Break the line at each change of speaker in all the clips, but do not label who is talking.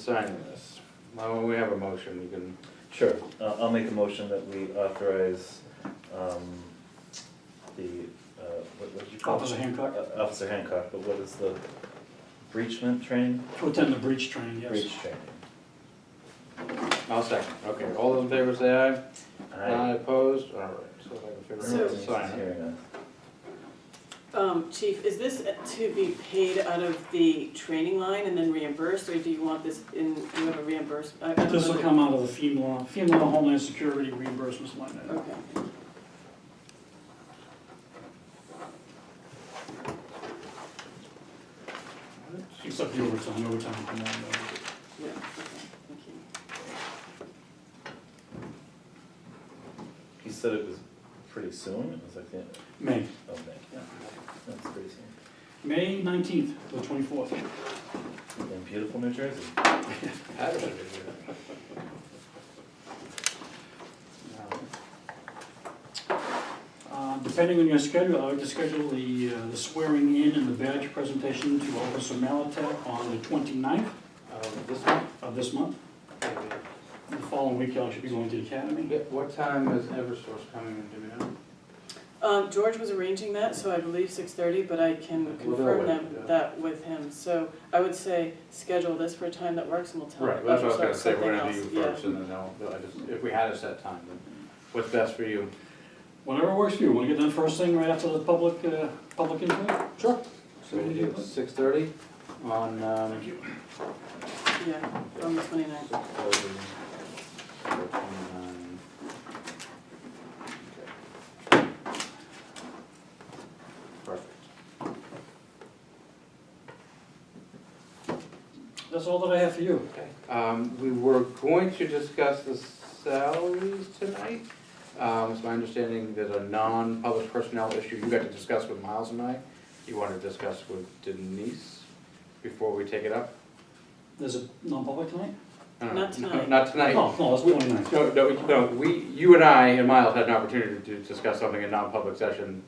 signing this? Why don't we have a motion, you can,
Sure, uh, I'll make a motion that we authorize, um, the, uh, what, what did you call it?
Officer Hancock,
Uh, Officer Hancock, but what is the breachment training?
to attend the breach training, yes.
Breach training.
I'll second, okay, all those in favor say aye.
Uh,
I,
Opposed, all right, so if I can figure out how to sign it.
hearing us.
Um, Chief, is this to be paid out of the training line and then reimbursed, or do you want this in, you have a uh, reimbursement?
This will come out of the FEMA, FEMA Homeland Security reimbursements line item.
Okay.
Except the overtime, overtime will come out of that.
Yeah, okay, thank you.
He said it was pretty soon, it was like the,
May,
oh, man,
yeah.
that's pretty soon.
May nineteenth to the twenty-fourth.
In beautiful New Jersey.
How did I do that?
Uh, Depending on your schedule, I would just schedule the uh, the swearing in and the badge presentation to Officer Malatek on the 29th
Um, This one?
of this month. The following week, I should be going to the academy.
Yeah, What time is Eversource coming in, do we know?
Um, George was arranging that, so I believe six thirty, but I can
We'll
confirm
wait,
them-
yeah.
that with him. So I would say, schedule this for a time that works and we'll tell him.
Right, that's what I was
about
gonna say, we're gonna do you
something else.
first, and then I'll, I just, if we had a set time, then what's best for you?
Whatever works for you. Want to get done first thing right after the public, uh, public input?
Sure. So
So we
we do
do
six thirty on, um,
Thank you.
Yeah, yeah, on the twenty-ninth.
Six thirty, twenty-nine. Okay. Perfect.
That's all that I have for you.
Okay, um, we were going to discuss the salaries tonight. Um, it's my understanding there's a non-public personnel issue you got to discuss with Miles and I. You want to discuss with Denise before we take it up?
There's a non-public tonight? Oh,
No, no,
Not
no,
tonight.
Not tonight.
No, no, it's 29th.
No, no, we- no, we, you and I and Miles had an opportunity to discuss something in non-public session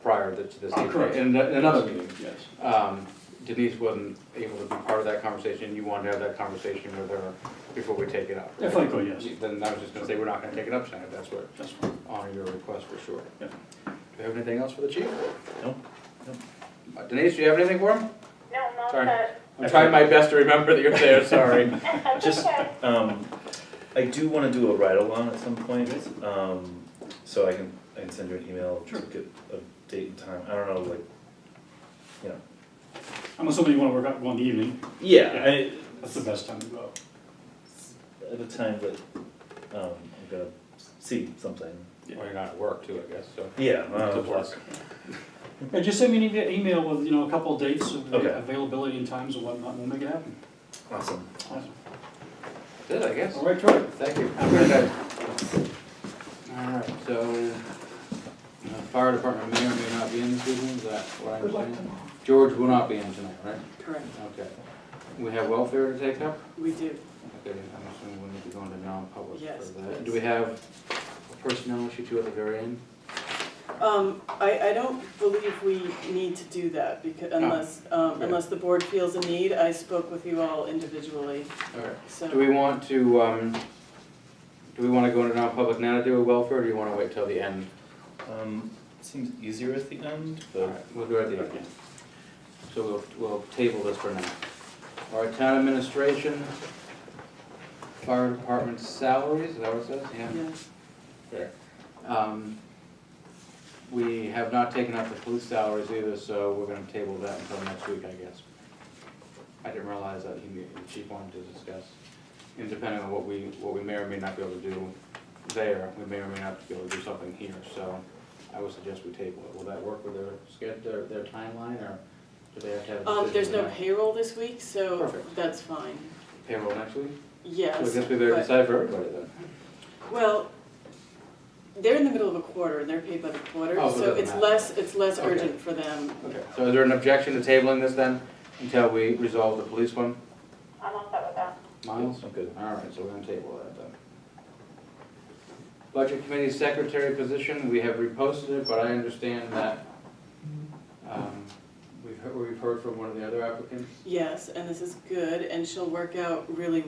prior to this
Ah,
meeting.
correct.
In the- in another meeting.
Yes.
Um, Denise wasn't able to be part of that conversation, you wanted to have that conversation with her before we take it up.
If I could, yes.
Then I was just gonna say, we're not gonna take it up tonight, if that's what,
That's fine.
on your request for sure.
Yeah.
Do you have anything else for the chief?
No.
Uh, Denise, do you have anything for him?
No, I'm all
Sorry.
set.
I'm trying my best to remember that you're there, sorry.
Just, um, I do wanna do a ride-along at some point, um, so I can, I can send you an email to get a date and time, I don't know, like, you know.
I'm assuming you want to work out one evening.
Yeah,
That's the best time to go.
I, at a time that, um, I'm gonna see something,
Well, you're not at work too, I guess, so.
yeah.
It's a
uh,
plus.
Yeah, just send me an e- email with, you know, a couple of dates of
Okay.
availability and times and whatnot, and we'll make it happen.
Awesome.
Awesome.
Did, I guess.
All right, Troy.
Thank you. Have a great day. All right, so, uh, fire department may or may not be in this evening, is that what I'm saying? George will not be in tonight, right?
Correct,
Okay. We have welfare to take up?
we do.
Okay, I'm assuming we need to go into non-public
Yes,
for that.
please.
Do we have a personnel issue too at the very end?
Um, I, I don't believe we need to do that because unless, um,
Oh. Okay.
unless the board feels a need. I spoke with you all individually,
All right.
so.
Do we want to, um, do we want to go into non-public now to do a welfare, or do you want to wait till the end?
Um, seems easier at the end,
All
but.
right, We'll do it at the end. So we'll, we'll table this for now. All right, town administration, fire department salaries, is that what it says? Yeah.
Yeah.
Fair. Um, We have not taken up the police salaries either, so we're gonna table that until next week, I guess. I didn't realize that he, the chief wanted to discuss, and depending on what we, what we may or may not be able to do there, we may or may not be able to do something here, so I would suggest we table it. Will that work with their sched, their, their timeline, or do they have to have a decision?
Um, there's no
tonight?
payroll this week, so
Perfect.
that's fine.
Payroll next week?
Yes.
So I guess we better
but-
decide for everybody then.
Well, they're in the middle of a quarter and they're paid by the quarter,
Oh, so it
so
doesn't
it's
matter.
less, it's less
Okay.
urgent for them.
Okay, so is there an objection to tabling this then, until we resolve the police one?
I'm all set with that.
Miles?
I'm good.
All right, so we're gonna table that then. Budget Committee Secretary position, we have reposted it, but I understand that, um, we've heard, we've heard from one of the other applicants?
Yes, and this is good, and she'll work out really